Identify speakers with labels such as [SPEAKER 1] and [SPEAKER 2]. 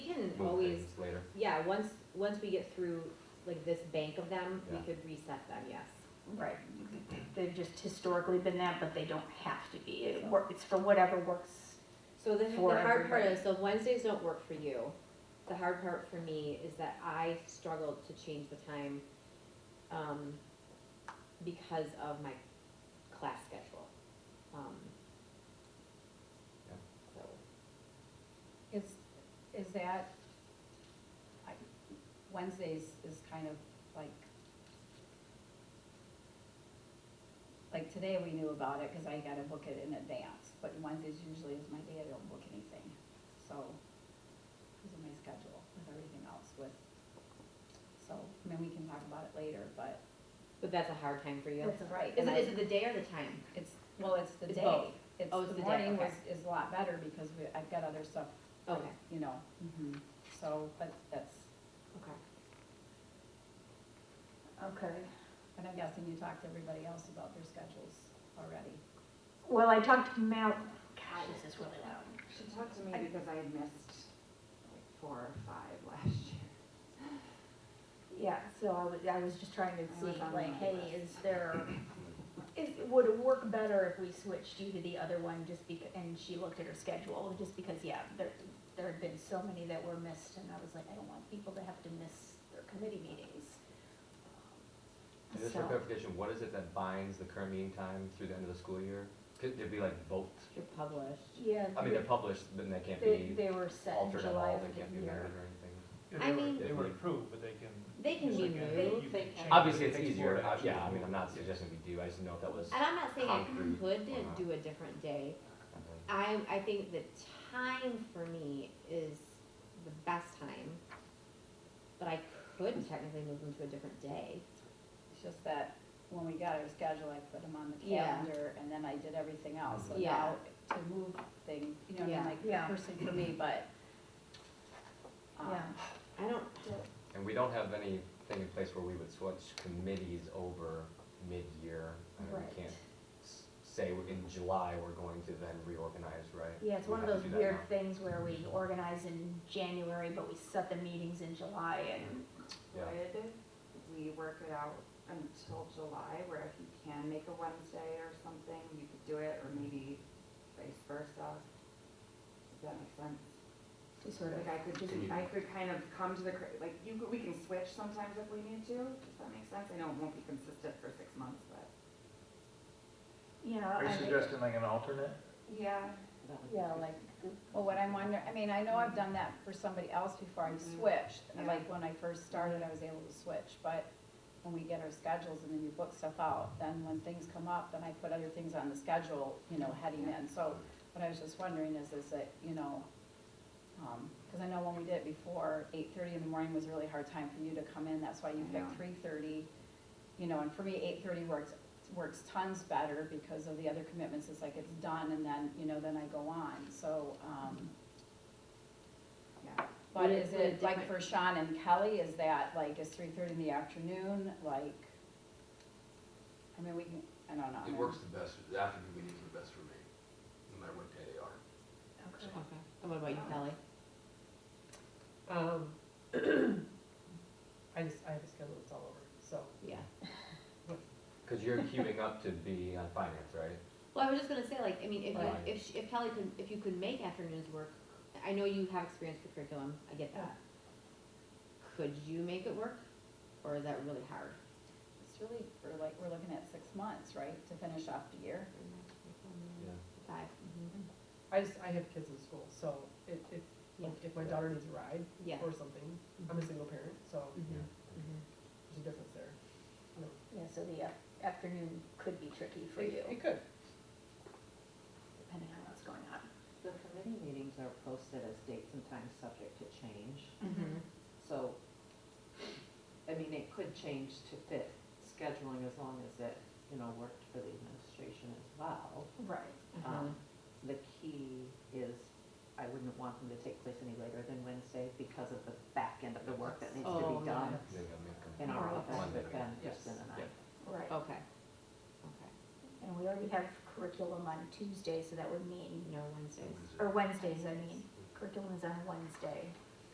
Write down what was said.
[SPEAKER 1] move
[SPEAKER 2] always-
[SPEAKER 1] things later.
[SPEAKER 2] Yeah, once, once we get through like this bank of them, we
[SPEAKER 1] Yeah.
[SPEAKER 2] could reset them, yes.
[SPEAKER 3] Right, they've just historically been that, but they don't have to be, it wor- it's for whatever works.
[SPEAKER 2] So the, the
[SPEAKER 3] For
[SPEAKER 2] hard part
[SPEAKER 3] everybody.
[SPEAKER 2] is, so Wednesdays don't work for you. The hard part for me is that I struggled to change the time, um, because of my class schedule. Um,
[SPEAKER 1] Yeah.
[SPEAKER 2] So,
[SPEAKER 4] Is, is that, I- Wednesdays is kind of like, like today we knew about it because I gotta book it in advance, but Wednesdays usually is my day I don't book anything, so, because of my schedule with everything else with, so, I mean, we can talk about it later, but.
[SPEAKER 2] but that's a hard time for you.
[SPEAKER 4] right.
[SPEAKER 2] Is it, is it the day or the time?
[SPEAKER 4] It's, well, it's the
[SPEAKER 2] It's
[SPEAKER 4] day.
[SPEAKER 2] both.
[SPEAKER 4] It's,
[SPEAKER 2] Oh, it's
[SPEAKER 4] the
[SPEAKER 2] the day,
[SPEAKER 4] morning
[SPEAKER 2] okay.
[SPEAKER 4] was, is a lot better because we, I've got other stuff,
[SPEAKER 2] Okay,
[SPEAKER 4] you know,
[SPEAKER 2] Mm-hmm.
[SPEAKER 4] so, but that's,
[SPEAKER 2] okay.
[SPEAKER 3] Okay.
[SPEAKER 4] and I'm guessing you talked to everybody else about their schedules already.
[SPEAKER 3] Well, I talked to Mal, God, this is really loud.
[SPEAKER 5] She talked to me because I had missed like four or five last year.
[SPEAKER 3] Yeah, so I was, I was just trying to
[SPEAKER 5] I was
[SPEAKER 3] see,
[SPEAKER 5] on
[SPEAKER 3] like,
[SPEAKER 5] my
[SPEAKER 3] hey,
[SPEAKER 5] list.
[SPEAKER 3] is there, is, would it work better if we switched you to the other one just because, and she looked at her schedule, just because, yeah, there, there had been so many that were missed, and I was like, I don't want people to have to miss their committee meetings.
[SPEAKER 1] And just for
[SPEAKER 3] So-
[SPEAKER 1] clarification, what is it that binds the current meeting time through the end of the school year? Could there be like vote?
[SPEAKER 2] You're published.
[SPEAKER 3] Yeah.
[SPEAKER 1] I mean, they're published, but they can't
[SPEAKER 3] They,
[SPEAKER 1] be
[SPEAKER 3] they were set in
[SPEAKER 1] altered at
[SPEAKER 3] July
[SPEAKER 1] all,
[SPEAKER 3] of
[SPEAKER 1] they can't be
[SPEAKER 3] the
[SPEAKER 1] amended
[SPEAKER 3] year.
[SPEAKER 1] or anything.
[SPEAKER 6] Yeah,
[SPEAKER 2] I
[SPEAKER 6] they were-
[SPEAKER 2] mean-
[SPEAKER 6] They were approved, but they can.
[SPEAKER 2] They can be
[SPEAKER 6] you can-
[SPEAKER 2] moved.
[SPEAKER 6] you can change
[SPEAKER 1] Obviously,
[SPEAKER 6] it.
[SPEAKER 1] it's
[SPEAKER 6] It takes
[SPEAKER 1] easier,
[SPEAKER 6] board
[SPEAKER 1] I- yeah, I
[SPEAKER 6] action.
[SPEAKER 1] mean, I'm not suggesting we do, I just know if that was.
[SPEAKER 2] And I'm not saying I
[SPEAKER 1] Concrete
[SPEAKER 2] could
[SPEAKER 1] or not.
[SPEAKER 2] do a different day, I, I think the time for me is the best time, but I could technically move them to a different day.
[SPEAKER 4] It's just that when we got our schedule, I put them on the
[SPEAKER 2] Yeah.
[SPEAKER 4] calendar and then I did everything else. So
[SPEAKER 2] Yeah.
[SPEAKER 4] now to move things, you know, what I mean,
[SPEAKER 2] Yeah.
[SPEAKER 4] like
[SPEAKER 3] Yeah.
[SPEAKER 4] person for me, but. um,
[SPEAKER 3] Yeah.
[SPEAKER 2] I don't,
[SPEAKER 1] And we don't have anything in place where we would switch committees over mid-year. I mean,
[SPEAKER 3] Right.
[SPEAKER 1] we can't s- say we're- in July, we're going to then reorganize, right?
[SPEAKER 3] Yeah, it's
[SPEAKER 1] We
[SPEAKER 3] one of
[SPEAKER 1] have
[SPEAKER 3] those
[SPEAKER 1] to do that
[SPEAKER 3] weird
[SPEAKER 1] now.
[SPEAKER 3] things where we organize in January, but we set the meetings in July and,
[SPEAKER 1] Yeah.
[SPEAKER 5] Would we work it out until July where if you can make a Wednesday or something, you could do it, or maybe vice versa? Does that make sense?
[SPEAKER 3] just sort
[SPEAKER 5] Like
[SPEAKER 3] of,
[SPEAKER 5] I could just, I could kind of come to the, cr- like, you, could- we can switch sometimes if we need to, does that make sense? I know it won't be consistent for six months, but.
[SPEAKER 3] you know.
[SPEAKER 6] Are you
[SPEAKER 3] I think-
[SPEAKER 6] suggesting like an alternate?
[SPEAKER 5] Yeah.
[SPEAKER 3] Yeah, like,
[SPEAKER 4] Well, what I'm wondering, I mean, I know I've done that for somebody else before I
[SPEAKER 2] Mm-hmm.
[SPEAKER 5] Mhm.
[SPEAKER 4] switched, and
[SPEAKER 5] Yeah.
[SPEAKER 4] like when I first started, I was able to switch, but when we get our schedules and then you book stuff out, then when things come up, then I put other things on the schedule, you know, heading in, so what I was just wondering is, is that, you know, um, cause I know when we did it before, eight thirty in the morning was a really hard time for you to come in, that's why you
[SPEAKER 5] I know.
[SPEAKER 4] picked three thirty. You know, and for me, eight thirty works, works tons better because of the other commitments, it's like it's done and then, you know, then I go on, so, um.
[SPEAKER 5] Yeah.
[SPEAKER 2] Would
[SPEAKER 4] But
[SPEAKER 2] it-
[SPEAKER 4] is
[SPEAKER 2] would it
[SPEAKER 4] it, like for Sean and Kelly, is that, like, is three thirty in the afternoon, like, I mean, we can, I don't know.
[SPEAKER 7] It works the best, the afternoon meetings are the best for me, no matter what day they are.
[SPEAKER 3] okay.
[SPEAKER 2] okay, and what about you, Kelly?
[SPEAKER 8] Um, I just, I have a schedule that's all over, so.
[SPEAKER 2] Yeah.
[SPEAKER 1] Cause you're queuing up to be on finance, right?
[SPEAKER 2] Well, I was just gonna say, like, I mean, if
[SPEAKER 1] Right.
[SPEAKER 2] you, if, she- if Kelly could, if you could make afternoons work, I know you have experience with curriculum, I get that. Could you make it work, or is that really hard?
[SPEAKER 4] It's really, we're like, we're looking at six months, right, to finish off the year?
[SPEAKER 1] Yeah.
[SPEAKER 2] 5 mhm.
[SPEAKER 8] I just, I have kids in school, so if, if, like, if my daughter needs a ride
[SPEAKER 2] yeah,
[SPEAKER 8] or something, I'm a single parent, so
[SPEAKER 2] mhm, mhm.
[SPEAKER 8] there's a difference there. You know,
[SPEAKER 3] Yeah, so the af- afternoon could be tricky for
[SPEAKER 8] it-
[SPEAKER 3] you,
[SPEAKER 8] It could.
[SPEAKER 3] depending on what's going on.
[SPEAKER 9] The committee meetings are posted as dates and times subject to change,
[SPEAKER 8] Mm-hmm.
[SPEAKER 2] Mhm.
[SPEAKER 9] so, I mean, it could change to fit scheduling as long as it, you know, worked for the administration as well.
[SPEAKER 3] Right.
[SPEAKER 2] Mm-hmm. Uh-huh.
[SPEAKER 9] Um, The key is, I wouldn't want them to take place any later than Wednesday because of the back end of the work that needs to
[SPEAKER 2] Oh,
[SPEAKER 9] be done
[SPEAKER 1] They gotta make 'em-
[SPEAKER 9] in our office,
[SPEAKER 1] Monday.
[SPEAKER 9] but then
[SPEAKER 8] Yes.
[SPEAKER 9] Kristen and I.
[SPEAKER 1] Yeah.
[SPEAKER 3] Right,
[SPEAKER 8] Oh.
[SPEAKER 2] Okay, okay,
[SPEAKER 3] and we already have curriculum on Tuesday, so that would mean,
[SPEAKER 2] no Wednesdays.
[SPEAKER 3] or Wednesdays, I mean, curriculum is on Wednesday.